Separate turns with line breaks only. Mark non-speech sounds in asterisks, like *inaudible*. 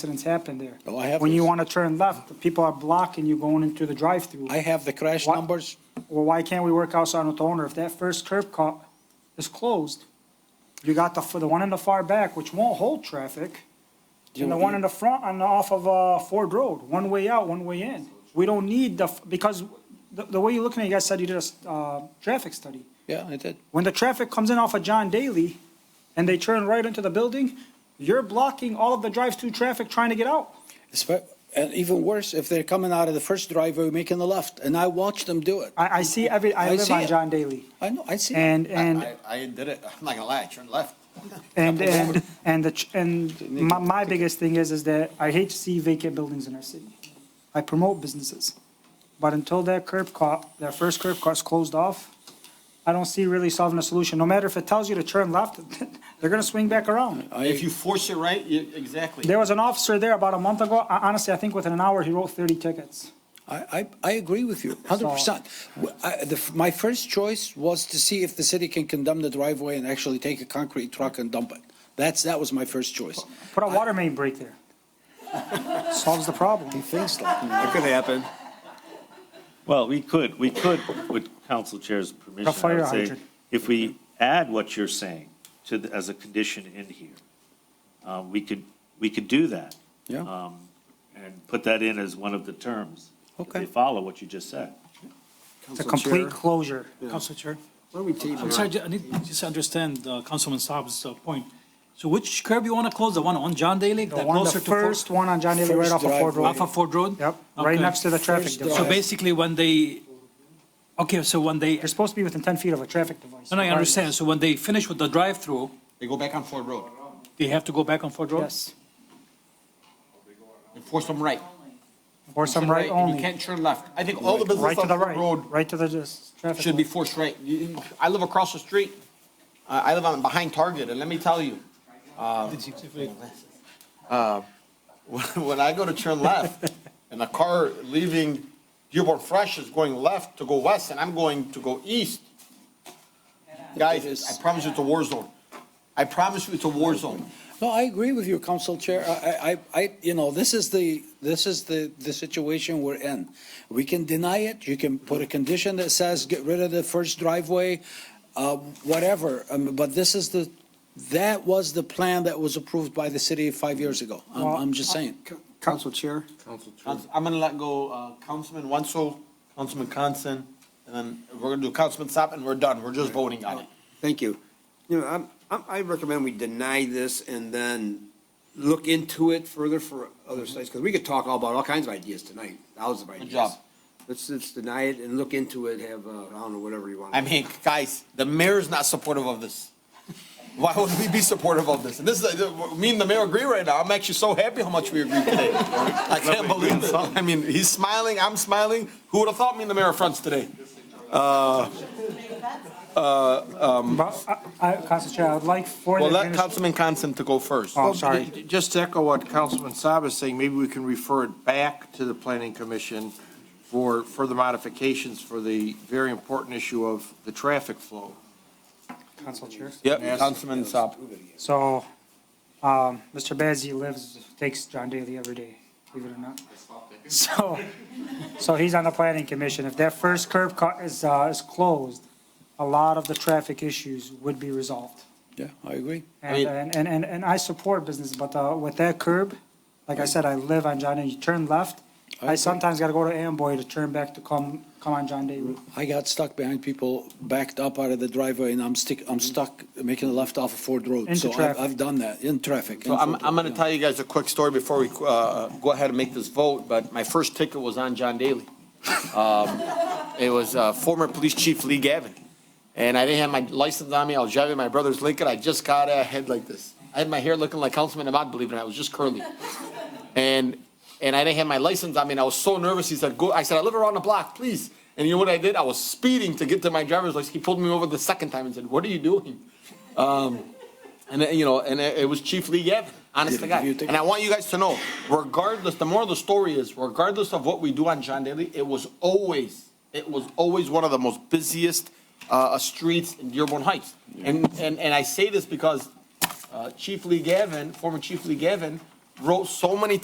accidents happen there.
Oh, I have
When you
those.
want to turn left, the people are blocking you going into the drive-through.
I have the crash
What?
numbers.
Well, why can't we work outside with the owner? If that first curb cut is closed, you got the, the one in the far back, which won't hold traffic, and the one in the front on, the- off of, uh, Ford Road, one way out, one way in. We don't need the, f- because the, the way you're looking at it, you guys said you did a, s- uh, traffic study.
Yeah, I did.
When the traffic comes in off of John Daly and they turn right into the building, you're blocking all of the drive-through traffic trying to get out.
It's ve- and even worse, if they're coming out of the first driveway, making the left, and I watch them do it.
I, I see every, I
I
live
see
on
it.
John Daly.
I know, I see. it.
And,
I-
and.
I, I did it, I'm not gonna lie, I turned left.
And, and, and, the ch- and my, my biggest thing is, is that I hate to see vacant buildings in our city. I promote businesses. But until that curb cut, that first curb cut's closed off, I don't see really solving a solution. No matter if it tells you to turn left, *laughs* they're gonna swing back around.
If you force it right, you, exactly.
There was an officer there about a month ago, ho- honestly, I think within an hour, he wrote thirty tickets.
I, I, I agree with you, hundred percent. My first choice was to see if the city can condemn the driveway and actually take a concrete truck and dump it. That's, that was my first choice.
Put a water main break there. *laughs* Solves the problem.
Things like,
That could happen.
Well, we could, we could, with council chair's permission,
A fire
I would say,
hydrant.
if we add what you're saying to, the- as a condition in here, um, we could, we could do that.
Yeah.
Uh,
um, And put that in as one of the terms. if
Okay.
They follow what you just said.
It's a complete closure.
Council Chair.
where we table?
I'm sorry, ju- I need to just understand uh, Councilman Saab's uh, point. So which curb you want to close? The one on John Daly?
The
that
one, the
closer to Ford-
first one on John Daly, right
First
off of Ford
driveway.
Road.
Off of Ford Road?
Yep, right
Okay.
next to the traffic.
First
device.
So basically, when they, okay, so when they,
You're supposed to be within 10 feet of a traffic device.
no, no, I
regardless.
understand. So when they finish with the drive-through,
They go back on Ford Road,
they have to go back on Ford Road?
Yes,
They force them right.
or some right
and You
only,
can't turn left. I think all the
right
businesses
to
on
the
Ford
right,
Road
right to the just traffic.
should be
light.
forced right. You- I live across the street, I, I live on, behind Target, and let me tell you, um, uh, *laughs* when, when I go to turn
*laughs*
left, and a car leaving Dearborn Fresh is going left to go west, and I'm going to go east. Guys, I promise you it's a war zone. I promise you it's a war zone.
No, I agree with you, Council Chair. I, I, I, you know, this is the, this is the, the situation we're in. We can deny it, you can put a condition that says get rid of the first driveway, uh, whatever, um, but this is the, that was the plan that was approved by the city five years ago. I'm, I'm just saying.
Council Chair,
Council- I'm gonna let go, uh, Councilman Wenzel, Councilman Constan, and then we're gonna do Councilman Sapp, and we're done. We're just voting on it.
thank you. You know, I'm, I'm, I recommend we deny this and then look into it further for other sites, because we could talk all about all kinds of ideas tonight, thousands of ideas.
Mm-hmm. job.
Let's, let's deny it and look into it, have, uh, I don't know, whatever you want.
I mean, guys, the mayor's not supportive of this. Why would we be supportive of this? And this is, uh, me and the mayor agree right now. I'm actually so happy how much we agree today. I can't believe it. I mean, he's smiling, I'm smiling. Who would have thought me and the mayor are friends today?
But, I- I, Council Chair, I would like for the,
Well, let
administ-
Councilman Constan to go first.
Oh,
Well,
sorry.
j- Just to echo what Councilman Saab is saying, maybe we can refer it back to the planning commission for further modifications for the very important issue of the traffic flow.
Council Chair.
Yep, Councilman Sapp.
So, um, Mr. Bazey lives, takes John Daly every day, believe it or not. So, so he's on the planning commission. If that first curb cut is, uh, is closed, a lot of the traffic issues would be resolved.
Yeah, I agree.
And, and, and- and, and I support business, but, uh, with that curb, like I said, I live on John, and you turn left. I
agree.
sometimes gotta go to Amboy to turn back to come, come on John Daly.
I got stuck behind people backed up out of the driveway and I'm stick, I'm stuck making a left off of Ford Road.
Into
So I've,
traffic.
I've done that, in traffic.
So
in
I'm,
Ford
I'm
Road,
going to
yeah.
tell you guys a quick story before we uh, go ahead and make this vote, but my first ticket was on John Daly. Um, It was uh, former police chief Lee Gavin. And I didn't have my license on me. I was driving my brother's Lincoln. I just got a head like this. I had my hair looking like Councilman Ahmad, believe it or not. It was just curly. And, and I didn't have my license on me, and I was so nervous. He said, go, I said, I live around the block, please. And you know what I did? I was speeding to get to my driver's license. He pulled me over the second time and said, what are you doing? And, uh, you know, and it it was Chief Lee Gavin, honest to
Did
God.
you take-
And I want you guys to know, regardless, the moral of the story is, regardless of what we do on John Daly, it was always, it was always one of the most busiest uh, streets in Dearborn Heights. And, and, and I say this because uh, Chief Lee Gavin, former Chief Lee Gavin, wrote so many